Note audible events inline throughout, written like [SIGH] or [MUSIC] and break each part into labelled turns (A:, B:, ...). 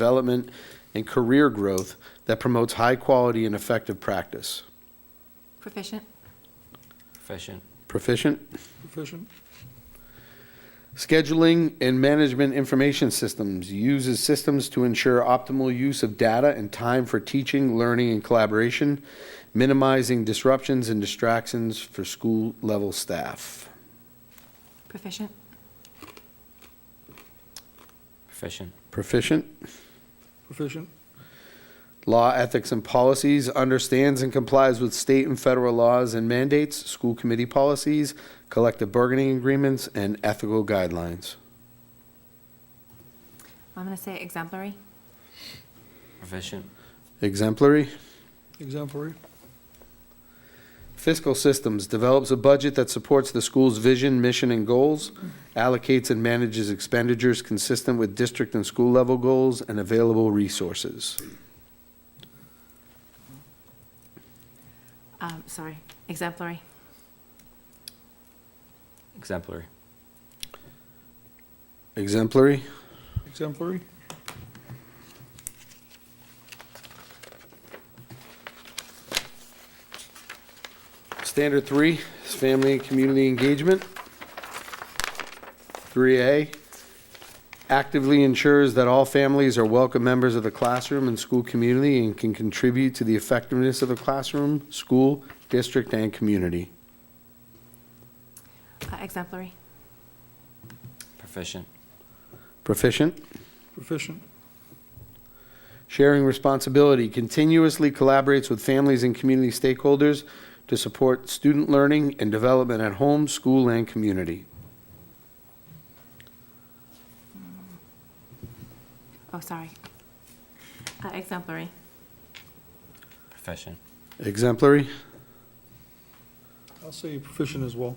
A: development, and career growth that promotes high quality and effective practice.
B: Proficient.
C: Proficient.
A: Proficient?
D: Proficient.
A: Scheduling and management information systems uses systems to ensure optimal use of data and time for teaching, learning, and collaboration, minimizing disruptions and distractions for school level staff.
B: Proficient.
C: Proficient.
A: Proficient?
D: Proficient.
A: Law, ethics, and policies understands and complies with state and federal laws and mandates, school committee policies, collective bargaining agreements, and ethical guidelines.
B: I'm going to say exemplary.
C: Proficient.
A: Exemplary.
D: Exemplary.
A: Fiscal Systems develops a budget that supports the school's vision, mission, and goals, allocates and manages expenditures consistent with district and school level goals and available resources.
B: Um, sorry, exemplary.
C: Exemplary.
A: Exemplary.
D: Exemplary.
A: Standard three is family and community engagement. Three A, actively ensures that all families are welcome members of the classroom and school community and can contribute to the effectiveness of the classroom, school, district, and community.
B: Uh, exemplary.
C: Proficient.
A: Proficient.
D: Proficient.
A: Sharing responsibility continuously collaborates with families and community stakeholders to support student learning and development at home, school, and community.
B: Oh, sorry. Uh, exemplary.
C: Proficient.
A: Exemplary.
D: I'll say proficient as well.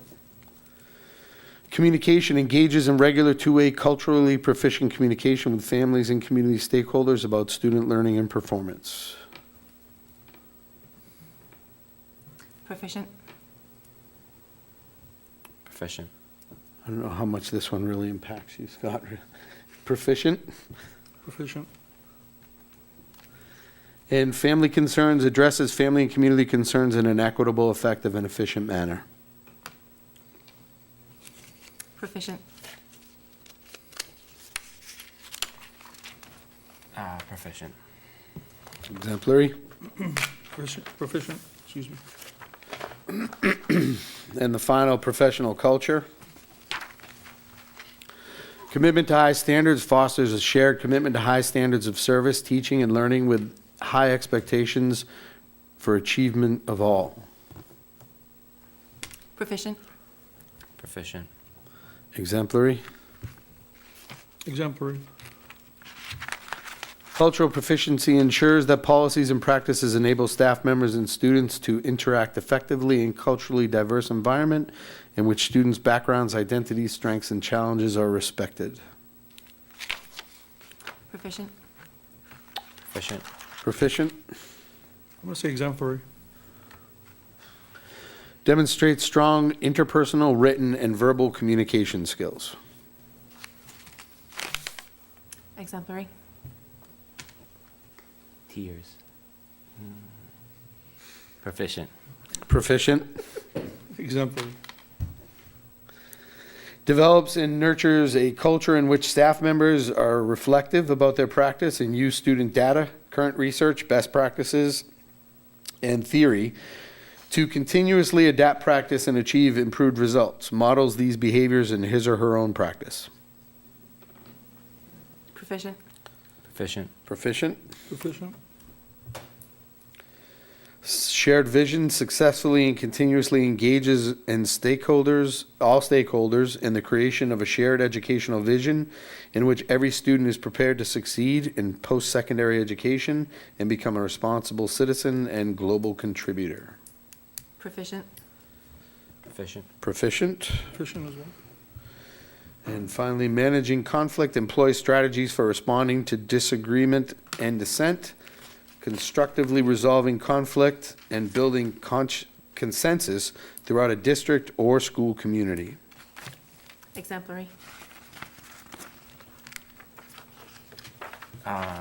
A: Communication engages in regular two-way culturally proficient communication with families and community stakeholders about student learning and performance.
B: Proficient.
C: Proficient.
A: I don't know how much this one really impacts you, Scott. [LAUGHS] Proficient?
D: Proficient.
A: And family concerns addresses family and community concerns in an equitable, effective, and efficient manner.
B: Proficient.
C: Ah, proficient.
A: Exemplary.
D: Proficient. Proficient. Excuse me.
A: And the final, professional culture. Commitment to high standards fosters a shared commitment to high standards of service, teaching, and learning with high expectations for achievement of all.
B: Proficient.
C: Proficient.
A: Exemplary.
D: Exemplary.
A: Cultural proficiency ensures that policies and practices enable staff members and students to interact effectively in culturally diverse environment in which students' backgrounds, identities, strengths, and challenges are respected.
B: Proficient.
C: Proficient.
A: Proficient.
D: I'm going to say exemplary.
A: Demonstrates strong interpersonal, written, and verbal communication skills.
B: Exemplary.
C: Tears. Hmm. Proficient.
A: Proficient.
D: Exemplary.
A: Develops and nurtures a culture in which staff members are reflective about their practice and use student data, current research, best practices, and theory to continuously adapt practice and achieve improved results. Models these behaviors in his or her own practice.
B: Proficient.
C: Proficient.
A: Proficient.
D: Proficient.
A: shared vision successfully and continuously engages and stakeholders all stakeholders in the creation of a shared educational vision in which every student is prepared to succeed in post-secondary education and become a responsible citizen and global contributor
B: Proficient.
C: Proficient.
A: proficient
D: Proficient as well.
A: and finally managing conflict employs strategies for responding to disagreement and dissent constructively resolving conflict and building conch- consensus throughout a district or school community.
B: Exemplary.
C: Ah,